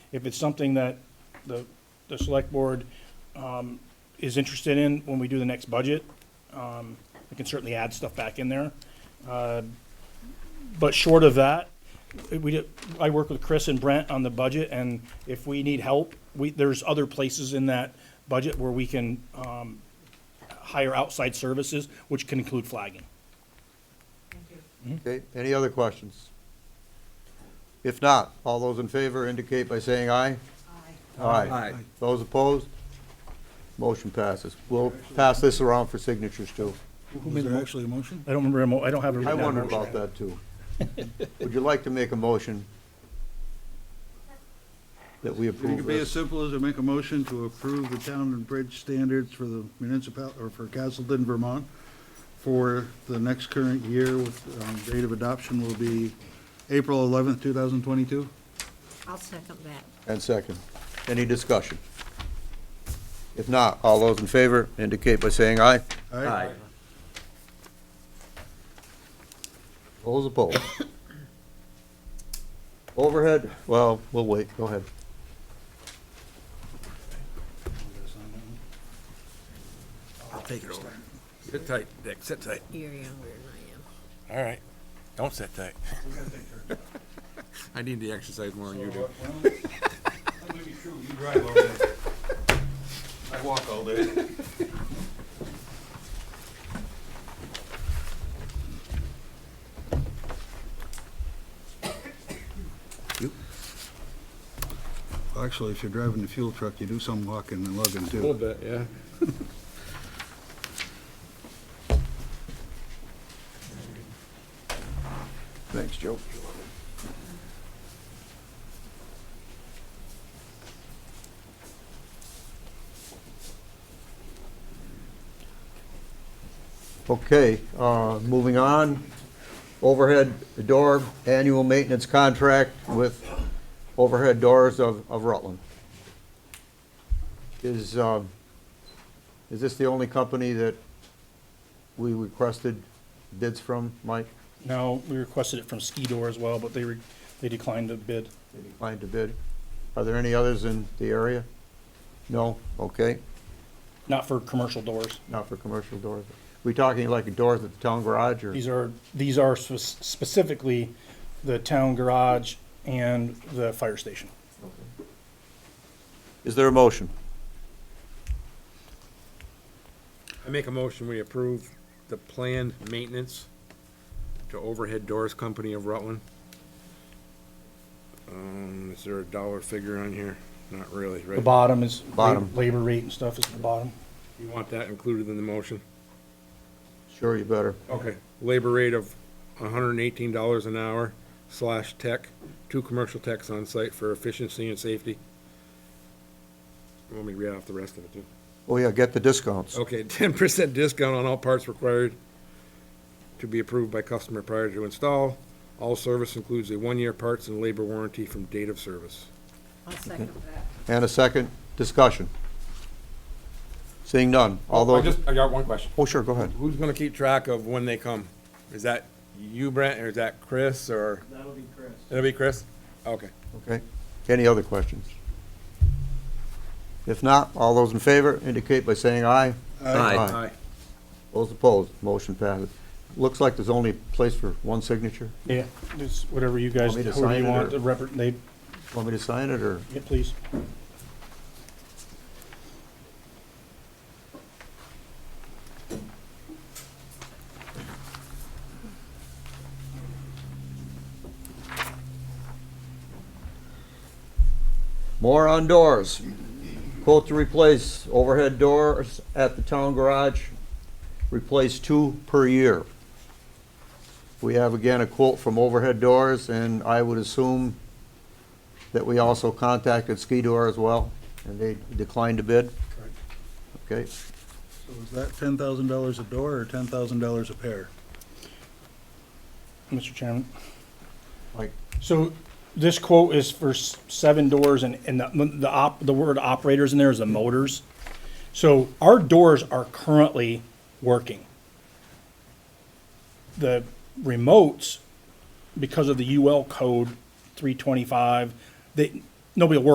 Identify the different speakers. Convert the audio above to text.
Speaker 1: If it's something that the, the select board um, is interested in when we do the next budget, um, we can certainly add stuff back in there. Uh, But short of that, we, did- I work with Chris and Brent on the budget, and if we need help, we, there's other places in that budget where we can um, hire outside services, which can include flagging.
Speaker 2: Okay, any other questions? If not, all those in favor indicate by saying aye. Aye. Aye. Those opposed? Motion passes. We'll pass this around for signatures too.
Speaker 3: Was there actually a motion?
Speaker 1: I don't remember, mo- I don't have a
Speaker 2: I
Speaker 1: written down
Speaker 2: wondered
Speaker 1: motion.
Speaker 2: about that too. Would you like to make a motion that we
Speaker 3: It
Speaker 2: approve
Speaker 3: could be as
Speaker 2: this?
Speaker 3: simple as to make a motion to approve the town and bridge standards for the municipal, or for Castleton, Vermont, for the next current year with, um, date of adoption will be April eleventh, two thousand twenty-two.
Speaker 4: I'll second that.
Speaker 2: And second, any discussion? If not, all those in favor indicate by saying aye.
Speaker 3: Aye.
Speaker 2: Those opposed? Overhead, well, we'll wait, go ahead.
Speaker 3: I'll take it over.
Speaker 5: Sit tight, Dick, sit tight.
Speaker 4: You're younger than
Speaker 5: All right, don't sit tight. I need to exercise more than you do.
Speaker 6: I walk all day.
Speaker 3: Actually, if you're driving the fuel truck, you do some walking and lugging too.
Speaker 5: bit, yeah.
Speaker 2: Thanks, Joe. Okay, uh, moving on, overhead door annual maintenance contract with Overhead Doors of of Rutland. Is, um, is this the only company that we requested bids from, Mike?
Speaker 1: No, we requested it from Skidor as well, but they, re- they declined the bid.
Speaker 2: They declined to bid. Are there any others in the area? No? Okay,
Speaker 1: Not for commercial doors.
Speaker 2: not for commercial doors. We talking like doors at the town garage or?
Speaker 1: These are, these are spec- specifically the town garage and the fire station.
Speaker 2: Is there a motion?
Speaker 5: I make a motion, we approve the planned maintenance to Overhead Doors Company of Rutland. Um, is there a dollar figure on here? Not really,
Speaker 1: The
Speaker 5: right?
Speaker 1: bottom is. lab-
Speaker 2: Bottom.
Speaker 1: Labor rate and stuff is at the bottom.
Speaker 5: You want that included in the motion?
Speaker 2: Sure, you better.
Speaker 5: Okay, labor rate of hundred and eighteen dollars an hour slash tech, two commercial techs on site for efficiency and safety. Let me to read off the rest of it too.
Speaker 2: Oh, yeah, get the discounts.
Speaker 5: Okay, ten percent discount on all parts required to be approved by customer prior to install. All service includes a one-year parts and labor warranty from date of service.
Speaker 4: I am. I'll second that.
Speaker 2: And a second, discussion. Seeing none, all
Speaker 5: Oh, I
Speaker 2: those,
Speaker 5: just, I got one question.
Speaker 2: oh, sure, go ahead.
Speaker 5: Who's gonna keep track of when they come? Is that you, Brent, or is that Chris, or? That'll be Chris. It'll be Chris? Okay.
Speaker 2: Okay, any other questions? If not, all those in favor indicate by saying aye. Aye. Those opposed, motion passes. Looks like there's only place for one signature.
Speaker 1: Yeah, it's whatever you guys,
Speaker 2: Want me to
Speaker 1: whoever
Speaker 2: sign
Speaker 1: you
Speaker 2: it
Speaker 1: want,
Speaker 2: or-
Speaker 1: the rep, they,
Speaker 2: Want me to sign it or?
Speaker 1: yeah, please.
Speaker 2: More on doors. Quote to replace overhead doors at the town garage, replace two per year. We have again a quote from Overhead Doors, and I would assume that we also contacted Ski Door as well, and they declined to bid. Okay,
Speaker 3: So is that ten thousand dollars a door or ten thousand dollars a pair?
Speaker 1: Mr. Chairman.
Speaker 2: Mike.
Speaker 1: So this quote is for s- seven doors and, and the, the op, the word operators in there is the motors. So our doors are currently working. The remotes, because of the UL code three twenty-five, they, nobody will work